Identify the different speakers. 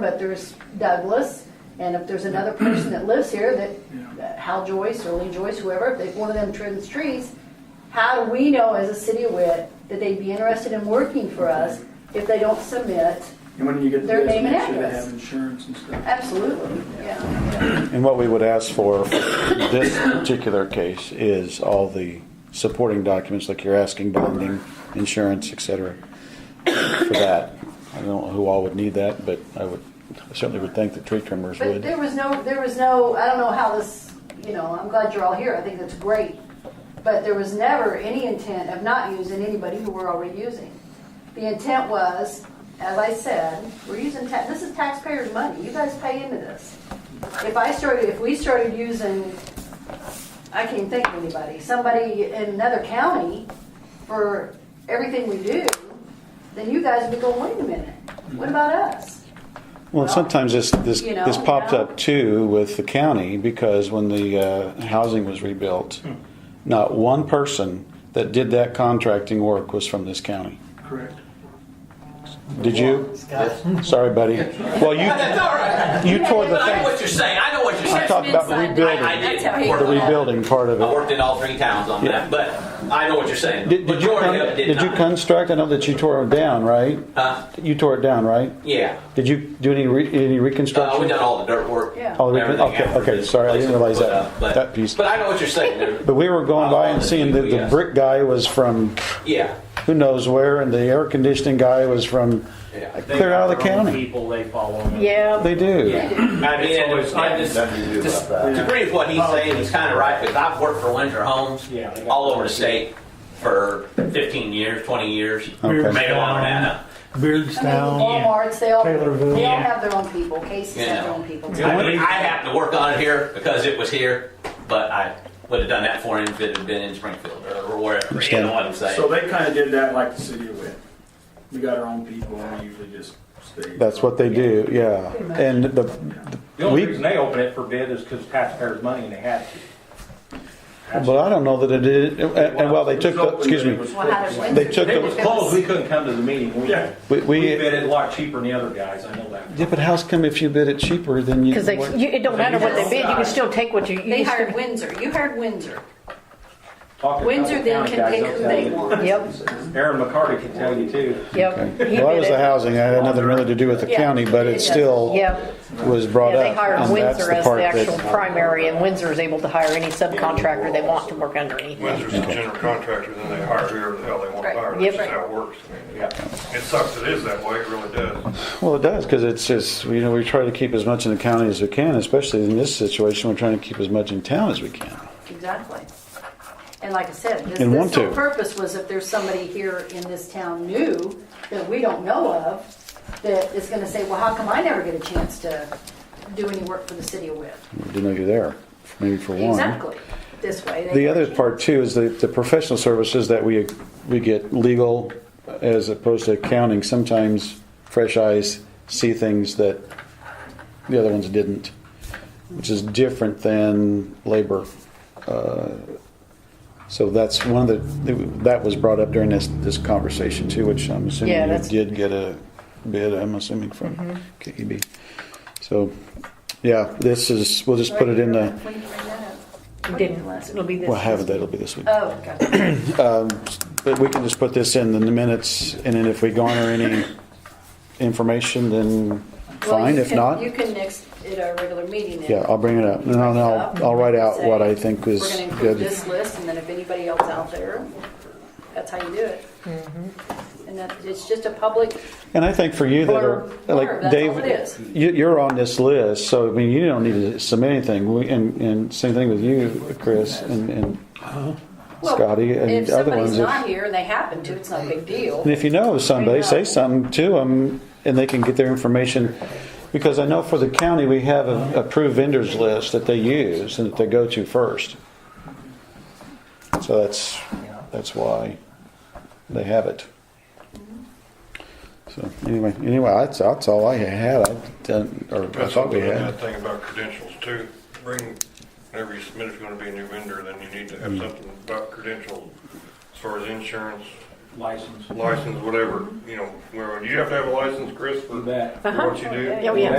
Speaker 1: but there's Douglas, and if there's another person that lives here, that, that Hal Joyce or Lee Joyce, whoever, if they- one of them trims trees, how do we know as a city of Witt that they'd be interested in working for us if they don't submit?
Speaker 2: And when you get the
Speaker 1: Their
Speaker 2: list,
Speaker 1: name and
Speaker 2: make sure they
Speaker 1: address.
Speaker 2: have insurance and stuff.
Speaker 1: Absolutely, yeah.
Speaker 3: And what we would ask for for this particular case is all the supporting documents, like you're asking, bonding, insurance, et cetera, for that. I don't know who all would need that, but I would, I certainly would think the tree trimmers
Speaker 1: But there
Speaker 3: would.
Speaker 1: was no, there was no, I don't know how this, you know, I'm glad you're all here, I think that's great. But there was never any intent of not using anybody who we're already using. The intent was, as I said, we're using, ta- this is taxpayers' money, you guys pay into this. If I started, if we started using, I can't think of anybody, somebody in another county for everything we do, then you guys would be going, wait a minute, what about us?
Speaker 3: Well, sometimes this, this,
Speaker 1: You know,
Speaker 3: this popped
Speaker 1: yeah.
Speaker 3: up too with the county, because when the, uh, housing was rebuilt, not one person that did that contracting work was from this county.
Speaker 2: Correct.
Speaker 3: Did you? Sorry, buddy. Well, you,
Speaker 4: All right.
Speaker 3: you tore the
Speaker 4: But I know
Speaker 3: fence.
Speaker 4: what you're saying. I know what you're
Speaker 3: I
Speaker 4: saying.
Speaker 3: talked about
Speaker 5: Inside,
Speaker 3: rebuilding.
Speaker 4: I, I did.
Speaker 5: That's how he
Speaker 4: work
Speaker 3: The
Speaker 4: on that.
Speaker 3: rebuilding part of
Speaker 4: I
Speaker 3: it.
Speaker 4: worked in all three towns on
Speaker 3: Yeah.
Speaker 4: that, but I know what you're saying.
Speaker 3: Did, did you,
Speaker 4: Majority of
Speaker 3: con-
Speaker 4: it did,
Speaker 3: did you
Speaker 4: not.
Speaker 3: construct? I know that you tore it down, right?
Speaker 4: Huh?
Speaker 3: You tore it down, right?
Speaker 4: Yeah.
Speaker 3: Did you do any re, any
Speaker 4: Uh, we
Speaker 3: reconstruction?
Speaker 4: done all the dirt work.
Speaker 1: Yeah.
Speaker 3: All the recon-
Speaker 4: everything
Speaker 3: Oh, okay,
Speaker 4: after
Speaker 3: okay,
Speaker 4: this
Speaker 3: sorry, I
Speaker 4: place
Speaker 3: didn't realize
Speaker 4: was put
Speaker 3: that-
Speaker 4: up, but,
Speaker 3: that piece.
Speaker 4: But I know what you're saying. There-
Speaker 3: but we were going by and seeing that the
Speaker 4: Yes.
Speaker 3: brick guy was from
Speaker 4: Yeah.
Speaker 3: who knows where, and the air conditioning guy was from
Speaker 4: Yeah.
Speaker 3: uh,
Speaker 6: They
Speaker 3: clear
Speaker 6: got
Speaker 3: out of the
Speaker 6: their own
Speaker 3: county.
Speaker 6: People they follow. them.
Speaker 1: Yeah.
Speaker 3: They do.
Speaker 4: I mean, and,
Speaker 6: always-
Speaker 4: and this, this- to agree with what he's saying, he's kind of right because I've worked for Winter Homes
Speaker 6: Yeah, they got-
Speaker 4: all over the state for 15 years, 20 years,
Speaker 3: Okay.
Speaker 4: maybe longer than that.
Speaker 1: I mean, Walmart's, they all, they all
Speaker 6: Yeah.
Speaker 1: have their own people, Casey's have their own people. too.
Speaker 4: I mean, I have to work on it here because it was here, but I would have done that for him if it had been in Springfield or wherever. You know what I'm saying?
Speaker 2: So they kind of did that like the city of Witt. We got our own people and we usually just stay.
Speaker 3: That's what they do. Yeah. And the,
Speaker 6: The only
Speaker 3: We-
Speaker 6: reason they open it for bid is because taxpayers' money and they had to.
Speaker 3: but I don't know that it did. And, and well, they
Speaker 2: It
Speaker 3: took.
Speaker 2: was
Speaker 3: The,
Speaker 2: open,
Speaker 3: excuse
Speaker 2: but it
Speaker 3: me.
Speaker 2: was
Speaker 1: Well, how does
Speaker 2: closed.
Speaker 3: They took
Speaker 6: If it was
Speaker 3: the.
Speaker 6: closed, we couldn't come to the meeting. We,
Speaker 2: Yeah.
Speaker 3: We,
Speaker 6: we
Speaker 3: we,
Speaker 6: bid it a lot cheaper than the other guys. I know that.
Speaker 3: yeah, but how's come if you bid it cheaper than you?
Speaker 7: Because they,
Speaker 3: what-
Speaker 7: you, it don't matter what they bid, you can still take what you. you
Speaker 1: They
Speaker 7: just-
Speaker 1: hired Windsor, you hired Windsor.
Speaker 6: Talking to
Speaker 1: Windsor
Speaker 6: other
Speaker 1: then
Speaker 6: county
Speaker 1: can
Speaker 6: guys,
Speaker 1: pick
Speaker 6: they'll
Speaker 1: who
Speaker 6: tell
Speaker 1: they
Speaker 6: you.
Speaker 1: want.
Speaker 7: Yep,
Speaker 6: Aaron McCarty can tell you too.
Speaker 7: yep. He
Speaker 3: Well, that
Speaker 7: did
Speaker 3: was
Speaker 7: it.
Speaker 3: the housing. I had nothing really to do with the
Speaker 1: Yeah.
Speaker 3: county, but it still
Speaker 7: Yep.
Speaker 3: was brought
Speaker 7: Yeah, they
Speaker 3: up.
Speaker 7: hired
Speaker 3: and that's
Speaker 7: Windsor as
Speaker 3: part
Speaker 7: the
Speaker 3: that-
Speaker 7: actual primary, and Windsor is able to hire any subcontractor they want to work underneath.
Speaker 8: Windsor's the general contractor, then they hire whoever the hell they want to
Speaker 1: Right.
Speaker 8: hire.
Speaker 7: Yep.
Speaker 8: That's just how it works. I mean,
Speaker 6: Yeah.
Speaker 8: It sucks it is that way, it really does.
Speaker 3: Well, it does, because it's just, you know, we try to keep as much in the county as we can, especially in this situation, we're trying to keep as much in town as we can.
Speaker 1: Exactly. And like I said, this,
Speaker 3: And want
Speaker 1: this whole
Speaker 3: to.
Speaker 1: purpose was if there's somebody here in this town new that we don't know of, that is gonna say, well, how come I never get a chance to do any work for the city of Witt?
Speaker 3: Didn't know you're there, maybe for one.
Speaker 1: Exactly, this way. they-
Speaker 3: The other part too is the, the professional services that we, we get legal as opposed to accounting. Sometimes fresh eyes see things that the other ones didn't, which is different than labor. Uh, So that's one of the, that was brought up during this, this conversation too, which I'm
Speaker 7: Yeah,
Speaker 3: assuming you
Speaker 7: that's- Mm-hmm.
Speaker 3: did get a bid, I'm assuming from KEB. So, yeah, this is, we'll just put it in the,
Speaker 1: When did you bring that up?
Speaker 7: You
Speaker 1: When
Speaker 7: Didn't,
Speaker 1: last-
Speaker 7: it'll be this.
Speaker 3: we'll have it, that'll be this week.
Speaker 1: Oh, gotcha.
Speaker 3: But we can just put this in the minutes, and then if we garner any information, then
Speaker 1: Well,
Speaker 3: fine.
Speaker 1: you
Speaker 3: If
Speaker 1: can-
Speaker 3: not,
Speaker 1: You can next, at our regular meeting then.
Speaker 3: yeah, I'll bring it up. And I'll, I'll- I'll write out what I think was
Speaker 1: We're gonna include
Speaker 3: good.
Speaker 1: this list, and then if anybody else out there, that's how you do it. And that, it's just a public,
Speaker 3: And I think for you that are,
Speaker 1: Blurb, blurb, that's
Speaker 3: like
Speaker 1: all
Speaker 3: Dave,
Speaker 1: it is.
Speaker 3: you, you're on this list, so I mean, you don't need to submit anything. We, and, and same thing with you, Chris, and, and
Speaker 1: well,
Speaker 3: Scotty, and
Speaker 1: if
Speaker 3: other
Speaker 1: somebody's
Speaker 3: ones.
Speaker 1: not here and they happen to, it's not a big deal.
Speaker 3: And if you know of somebody,
Speaker 1: know.
Speaker 3: say something to them, and they can get their information. Because I know for the county, we have an approved vendors list that they use and that they go to first. So that's, that's why they have it. So anyway, anyway, that's, that's all I had, I done, or I
Speaker 8: That's
Speaker 3: thought we
Speaker 8: something in
Speaker 3: had.
Speaker 8: That thing about credentials too, bring, whenever you
Speaker 3: Mm.
Speaker 8: submit, if you're gonna be a new vendor, then you need to have something about credentials as far as insurance,
Speaker 6: license.
Speaker 8: license, whatever, you know, where, do you have to have a license, Chris, for
Speaker 6: You bet.
Speaker 8: for what you do?
Speaker 7: Oh, yeah.